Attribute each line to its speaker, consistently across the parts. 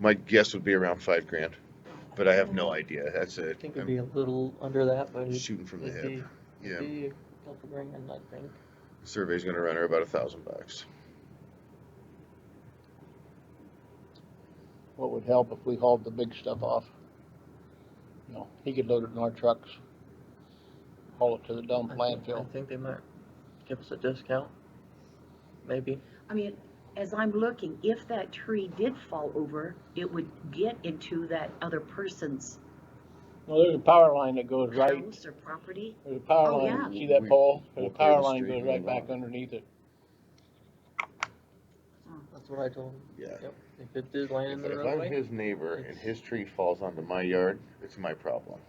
Speaker 1: My guess would be around five grand, but I have no idea. That's
Speaker 2: I
Speaker 1: it.
Speaker 2: think it'd be a little under that, but
Speaker 1: I'm
Speaker 2: it'd
Speaker 1: shooting from the
Speaker 2: it'd
Speaker 1: hip.
Speaker 2: be,
Speaker 1: Yeah,
Speaker 2: it'd be a couple grand, I think.
Speaker 1: survey's gonna run her about a thousand bucks.
Speaker 3: What would help if we hauled the big stuff off? You know, he could load it in our trucks, haul it to the dump
Speaker 2: I think-
Speaker 3: landfill.
Speaker 2: I think they might give us a discount, maybe.
Speaker 4: I mean, as I'm looking, if that tree did fall over, it would get into that other person's
Speaker 3: Well, there's a power line that goes right,
Speaker 4: house or property.
Speaker 3: there's a power
Speaker 4: Oh,
Speaker 3: line,
Speaker 1: yeah.
Speaker 3: see that
Speaker 1: We-
Speaker 3: pole?
Speaker 1: we'll
Speaker 3: There's a
Speaker 1: clear
Speaker 3: power
Speaker 1: the
Speaker 3: line
Speaker 1: street
Speaker 3: goes right
Speaker 1: and
Speaker 3: back
Speaker 1: along.
Speaker 3: underneath it.
Speaker 2: That's what I told them.
Speaker 1: Yeah.
Speaker 2: Yep. If it did land in
Speaker 1: If
Speaker 2: the
Speaker 1: if I'm
Speaker 2: roadway,
Speaker 1: his neighbor and
Speaker 2: It's-
Speaker 1: his tree falls onto my yard, it's my problem.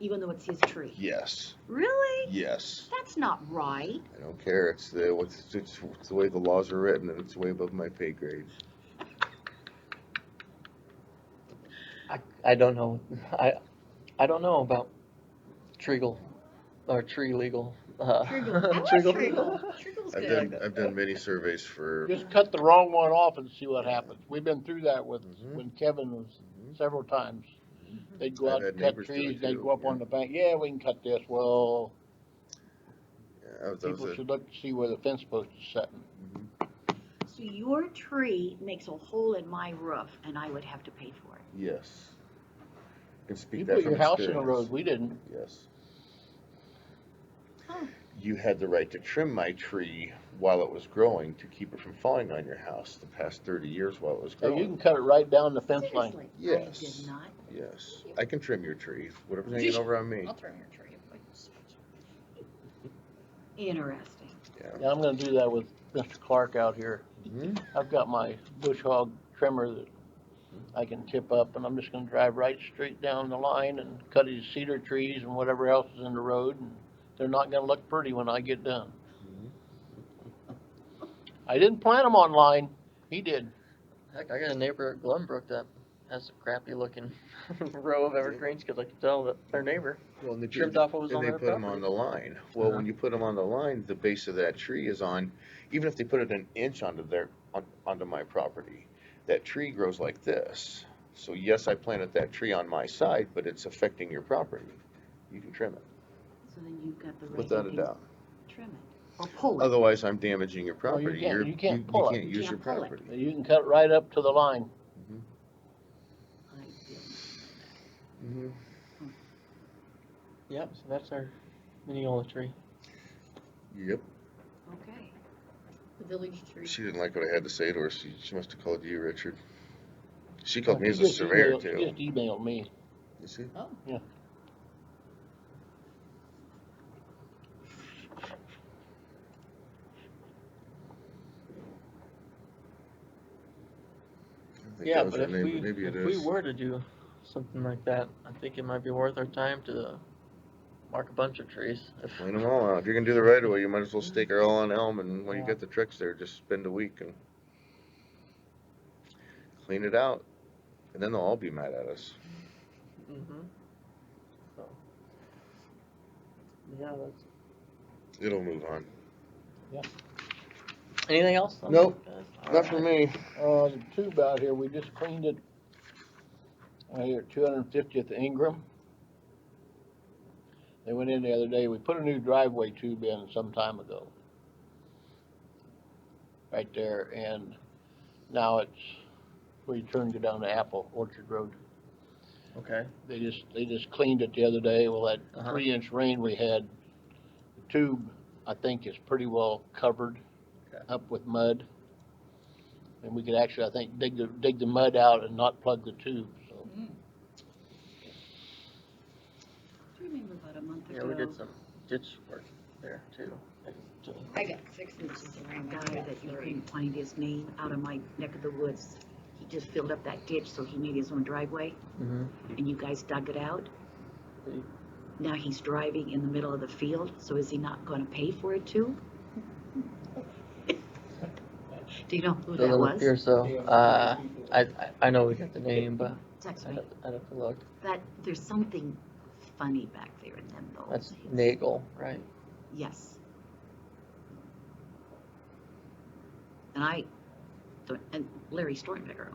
Speaker 4: Even though it's his tree.
Speaker 1: Yes,
Speaker 4: Really?
Speaker 1: yes.
Speaker 4: That's not right.
Speaker 1: I don't care. It's the, it's, it's it's the way the laws are written and it's way above my pay grade.
Speaker 2: I don't know. I, I don't know about treagle, or tree legal. Uh,
Speaker 4: Triggle. I like
Speaker 2: triggle.
Speaker 4: triggle. Triggle's
Speaker 1: I've
Speaker 4: good.
Speaker 1: done, I've done many surveys for,
Speaker 3: Just cut the wrong one off and see what happens. We've been through that with,
Speaker 1: Mhm.
Speaker 3: when Kevin was
Speaker 1: Mhm.
Speaker 3: several times.
Speaker 4: Mm-hmm.
Speaker 3: They'd go
Speaker 1: I've
Speaker 3: out
Speaker 1: had
Speaker 3: and cut
Speaker 1: neighbors do it
Speaker 3: trees, they'd
Speaker 1: too,
Speaker 3: go up
Speaker 1: yeah.
Speaker 3: on the bank, yeah, we can cut this, well,
Speaker 1: yeah, I was- I was
Speaker 3: people
Speaker 1: a-
Speaker 3: should look to see where the fence post is setting.
Speaker 1: mhm.
Speaker 4: So your tree makes a hole in my roof and I would have to pay for it.
Speaker 1: yes. Can
Speaker 3: You
Speaker 1: speak that
Speaker 3: put
Speaker 1: from
Speaker 3: your house in the
Speaker 1: experience.
Speaker 3: road, we didn't.
Speaker 1: Yes.
Speaker 4: Huh.
Speaker 1: You had the right to trim my tree while it was growing to keep it from falling on your house the past thirty years while it was
Speaker 3: Hey, you can
Speaker 1: growing.
Speaker 3: cut it right down the fence line.
Speaker 4: Seriously, I
Speaker 1: Yes.
Speaker 4: did not.
Speaker 1: Yes, I can trim your tree, whatever's hanging over on me,
Speaker 4: Oh.
Speaker 5: I'll throw in your tree. if I can switch.
Speaker 4: Interesting.
Speaker 1: yeah.
Speaker 3: Yeah, I'm gonna do that with Mr. Clark out here.
Speaker 1: Mhm.
Speaker 3: I've got my bush hog trimmer that I can tip up and I'm just gonna drive right straight down the line and cut his cedar trees and whatever else is in the road. and They're not gonna look pretty when I get done. I didn't plant them online, he did.
Speaker 2: Heck, I got a neighbor at Glenbrook that has a crappy looking row of evergreens, cause I could tell that their neighbor
Speaker 1: Well, and the
Speaker 2: trimmed
Speaker 1: tree,
Speaker 2: off what was
Speaker 1: and
Speaker 2: on
Speaker 1: they
Speaker 2: their
Speaker 1: put them on
Speaker 2: property.
Speaker 1: the line, well,
Speaker 2: Uh-huh.
Speaker 1: when you put them on the line, the base of that tree is on, even if they put it an inch onto their, on, onto my property, that tree grows like this, so yes, I planted that tree on my side, but it's affecting your property, you can trim it,
Speaker 4: So then you've got the right.
Speaker 1: without
Speaker 4: you
Speaker 1: a
Speaker 4: can
Speaker 1: doubt.
Speaker 4: Trim it or pull it.
Speaker 1: Otherwise, I'm damaging your
Speaker 3: Well, you
Speaker 1: property.
Speaker 3: can't-
Speaker 1: You're-
Speaker 3: you can't pull it.
Speaker 1: You can't
Speaker 4: You
Speaker 1: use your
Speaker 4: can't pull it.
Speaker 1: property.
Speaker 3: You can cut right up to the line.
Speaker 4: I didn't.
Speaker 1: Mm-hmm.
Speaker 2: Yep, so that's our mineola tree.
Speaker 1: Yep.
Speaker 4: Okay.
Speaker 5: The village tree.
Speaker 1: She didn't like what I had to say to her. She, she must have called you, Richard. She called me as
Speaker 3: He
Speaker 1: a
Speaker 3: just
Speaker 1: surveyor
Speaker 3: emailed- He
Speaker 1: too.
Speaker 3: just emailed me.
Speaker 1: You see?
Speaker 5: Oh.
Speaker 3: Yeah.
Speaker 1: I think
Speaker 2: Yeah,
Speaker 1: that was
Speaker 2: but
Speaker 1: her
Speaker 2: if
Speaker 1: name,
Speaker 2: we,
Speaker 1: but maybe it
Speaker 2: if we
Speaker 1: is.
Speaker 2: were to do something like that, I think it might be worth our time to mark a bunch of trees. If-
Speaker 1: Clean them all out. If you're gonna do the right of way, you might as well stake her all on Elm and when you
Speaker 2: Yeah.
Speaker 1: get the trucks there, just spend a week and clean it out. And then they'll all be mad at us.
Speaker 2: Mhm. So. Yeah, that's,
Speaker 1: It'll move on.
Speaker 2: anything else? on
Speaker 1: Nope,
Speaker 2: that, guys?
Speaker 1: Not for
Speaker 2: Alright.
Speaker 1: me.
Speaker 3: Uh, the tube out here, we just cleaned it. Right here, two hundred and fiftieth Ingram. They went in the other day, we put a new driveway tube in some time ago. Right there, and now it's, we turned it down to Apple Orchard Road.
Speaker 2: Okay,
Speaker 3: They just, they just cleaned it the other day, well, that
Speaker 2: Uh-huh.
Speaker 3: three inch rain we had, the tube, I think, is pretty well covered
Speaker 2: Okay.
Speaker 3: up with mud. And we could actually, I think, dig the, dig the mud out and not plug the tube, so.
Speaker 5: Mm.
Speaker 4: Do you remember about a month ago?
Speaker 2: yeah, we did some ditch work there too. And,
Speaker 5: I got six inches of
Speaker 4: A
Speaker 5: rain. I
Speaker 4: guy
Speaker 5: got
Speaker 4: that you
Speaker 5: three.
Speaker 4: couldn't find his name out of my neck of the woods. He just filled up that ditch, so he made his own driveway,
Speaker 2: Mhm.
Speaker 4: and you guys dug it out.
Speaker 2: He-
Speaker 4: Now he's driving in the middle of the field, so is he not gonna pay for it too? Do you know who that
Speaker 2: Doesn't appear
Speaker 4: was?
Speaker 2: so. Uh, I, I, I know we got the name, but
Speaker 4: Text
Speaker 2: I'd
Speaker 4: me.
Speaker 2: have, I'd have to look.
Speaker 4: That, there's something funny back there in them though.
Speaker 2: That's Nagel, right?
Speaker 4: Yes. And I, and Larry Stormberger